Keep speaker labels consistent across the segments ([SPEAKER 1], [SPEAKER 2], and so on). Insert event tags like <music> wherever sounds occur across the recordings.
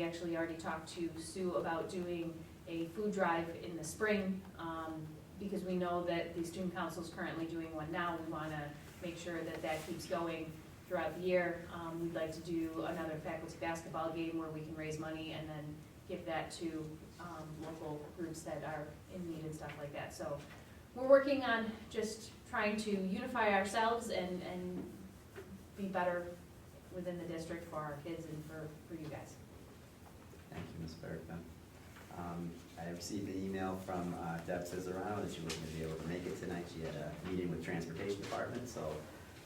[SPEAKER 1] We actually already talked to Sue about doing a food drive in the spring, um, because we know that the student council is currently doing one now. We wanna make sure that that keeps going throughout the year. Um, we'd like to do another faculty basketball game where we can raise money and then give that to, um, local groups that are in need and stuff like that. So we're working on just trying to unify ourselves and, and be better within the district for our kids and for, for you guys.
[SPEAKER 2] Thank you, Ms. Bergman. Um, I received an email from uh, Deb Cesarano that she wasn't gonna be able to make it tonight. She had a meeting with Transportation Department, so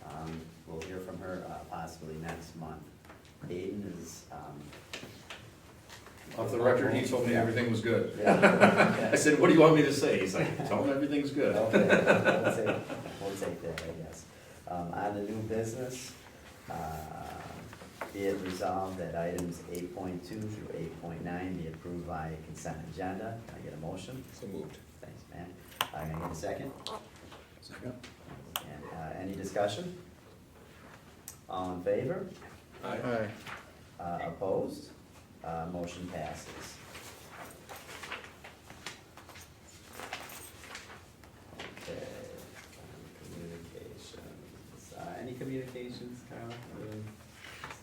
[SPEAKER 2] um, we'll hear from her uh, possibly next month. Aiden is. um,
[SPEAKER 3] Off the record, he told me
[SPEAKER 2] Yeah.
[SPEAKER 3] everything was good.
[SPEAKER 2] Yeah.
[SPEAKER 3] I said, what do you want me to say? He's like, tell him everything's good.
[SPEAKER 2] Okay, we'll take, we'll take that, I guess. Um, on the new business, uh, be it resolved that items eight point two through eight point nine be approved by consent agenda. Can I get a motion?
[SPEAKER 4] So moved.
[SPEAKER 2] Thanks, Matt. I'm gonna get a second.
[SPEAKER 3] Second.
[SPEAKER 2] And, uh, any discussion? All in favor?
[SPEAKER 4] Aye.
[SPEAKER 2] Uh, opposed? Uh, motion passes. Okay, communications. Uh, any communications, Carla? Um,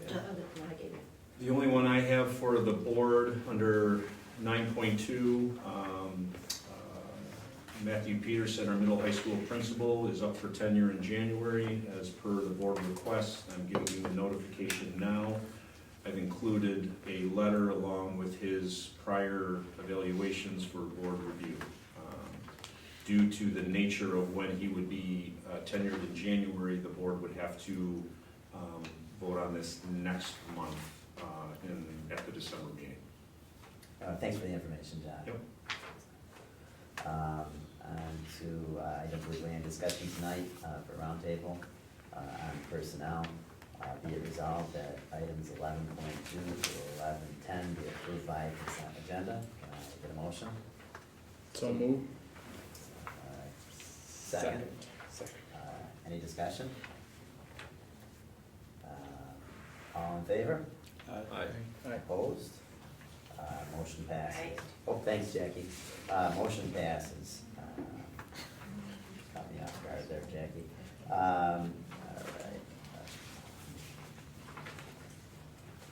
[SPEAKER 5] Uh,
[SPEAKER 2] Sarah?
[SPEAKER 5] other- no, I gave you.
[SPEAKER 3] The only one I have for the board under nine point two, um, uh, Matthew Peterson, our middle high school principal, is up for tenure in January as per the board request. I'm giving you the notification now. I've included a letter along with his prior evaluations for board review. Um, Due to the nature of when he would be uh, tenured in January, the board would have to um, vote on this next month uh, in, at the December meeting.
[SPEAKER 2] Uh, thanks for the information, John.
[SPEAKER 3] Yep.
[SPEAKER 2] Um, and to, uh, item we land discussion tonight, uh, for roundtable, uh, on personnel. Uh, be it resolved that items eleven point two to eleven ten be approved by consent agenda. Can I get a motion?
[SPEAKER 4] So moved.
[SPEAKER 2] Uh, Second, uh, any discussion? Uh, all in favor?
[SPEAKER 3] Aye.
[SPEAKER 4] Aye.
[SPEAKER 2] Opposed? Uh, motion passes. Oh, thanks, Jackie. Uh, motion passes. Um, Caught me off guard there, Jackie. Um, all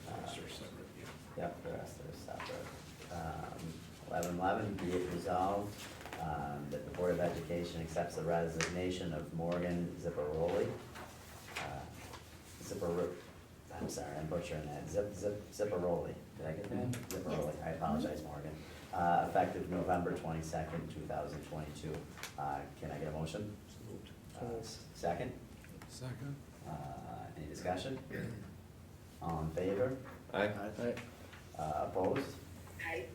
[SPEAKER 2] right. Uh,
[SPEAKER 3] Sir, separate, yeah.
[SPEAKER 2] Yep, the rest are separate. Um, eleven eleven, be it resolved, um, that the Board of Education accepts the resignation of Morgan Zipperoli. uh, Zipper, I'm sorry, I'm butchering that, Zip, Zip, Zipperoli, did I get that? Zipperoli, I apologize, Morgan. Uh, effective November twenty-second, two thousand twenty-two. Uh, can I get a motion? Uh, s- Second,
[SPEAKER 4] Second.
[SPEAKER 2] uh, any discussion? All in favor?
[SPEAKER 4] Aye. Aye.
[SPEAKER 2] Uh, opposed?
[SPEAKER 5] Aye.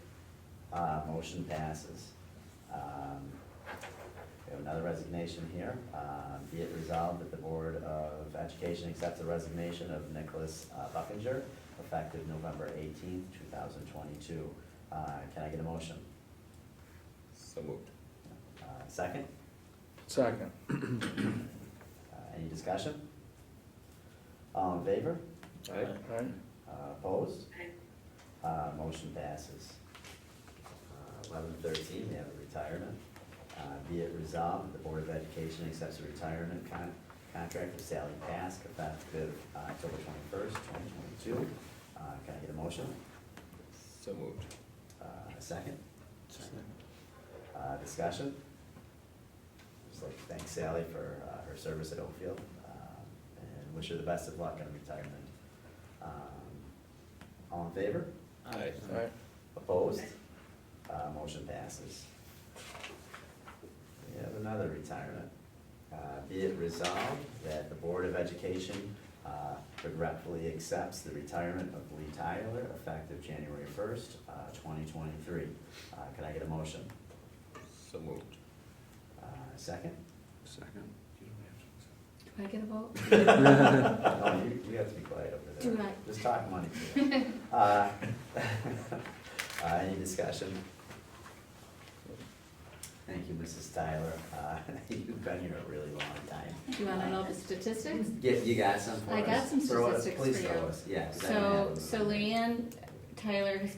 [SPEAKER 2] Uh, motion passes. Um, We have another resignation here. Uh, Be it resolved that the Board of Education accepts the resignation of Nicholas uh, Buckinger effective November eighteenth, two thousand twenty-two. Uh, Can I get a motion?
[SPEAKER 4] So moved.
[SPEAKER 2] Uh, Second?
[SPEAKER 4] Second.
[SPEAKER 2] Uh, Any discussion? All in favor?
[SPEAKER 4] Aye. Aye.
[SPEAKER 2] Uh, Opposed?
[SPEAKER 5] Aye.
[SPEAKER 2] Uh, Motion passes. Uh, Eleven thirteen, we have a retirement. Uh, Be it resolved, that the Board of Education accepts the retirement con- contract of Sally Pask effective uh, October twenty-first, twenty twenty-two. Uh, Can I get a motion?
[SPEAKER 4] So moved.
[SPEAKER 2] Uh, A second? Uh, Discussion? Just like to thank Sally for uh, her service at Oakfield um, and wish her the best of luck in retirement. Um, All in favor?
[SPEAKER 4] Aye.
[SPEAKER 6] Aye.
[SPEAKER 2] Opposed? Uh, motion passes. We have another retirement. Uh, be it resolved that the Board of Education, uh, regretfully accepts the retirement of Lee Tyler effective January first, uh, twenty twenty-three. Uh, can I get a motion?
[SPEAKER 4] So moved.
[SPEAKER 2] Uh, second?
[SPEAKER 3] Second. You don't have
[SPEAKER 5] Do
[SPEAKER 3] to.
[SPEAKER 5] I get a vote?
[SPEAKER 2] No, Oh, you, you have to be quiet over there.
[SPEAKER 5] Do not.
[SPEAKER 2] Just talk money.
[SPEAKER 6] <laughs>
[SPEAKER 2] to her. Uh, <laughs> uh, any discussion? Thank you, Mrs. Tyler. Uh, <laughs> you've been here a really long time.
[SPEAKER 6] Do you wanna know the statistics?
[SPEAKER 2] Get, you got some for us?
[SPEAKER 6] I got some
[SPEAKER 2] Throw us-
[SPEAKER 6] statistics
[SPEAKER 2] Please
[SPEAKER 6] for
[SPEAKER 2] throw
[SPEAKER 6] you.
[SPEAKER 2] us, yeah. 'cause I
[SPEAKER 6] So,
[SPEAKER 2] don't have them.
[SPEAKER 6] so Leanne
[SPEAKER 1] Tyler has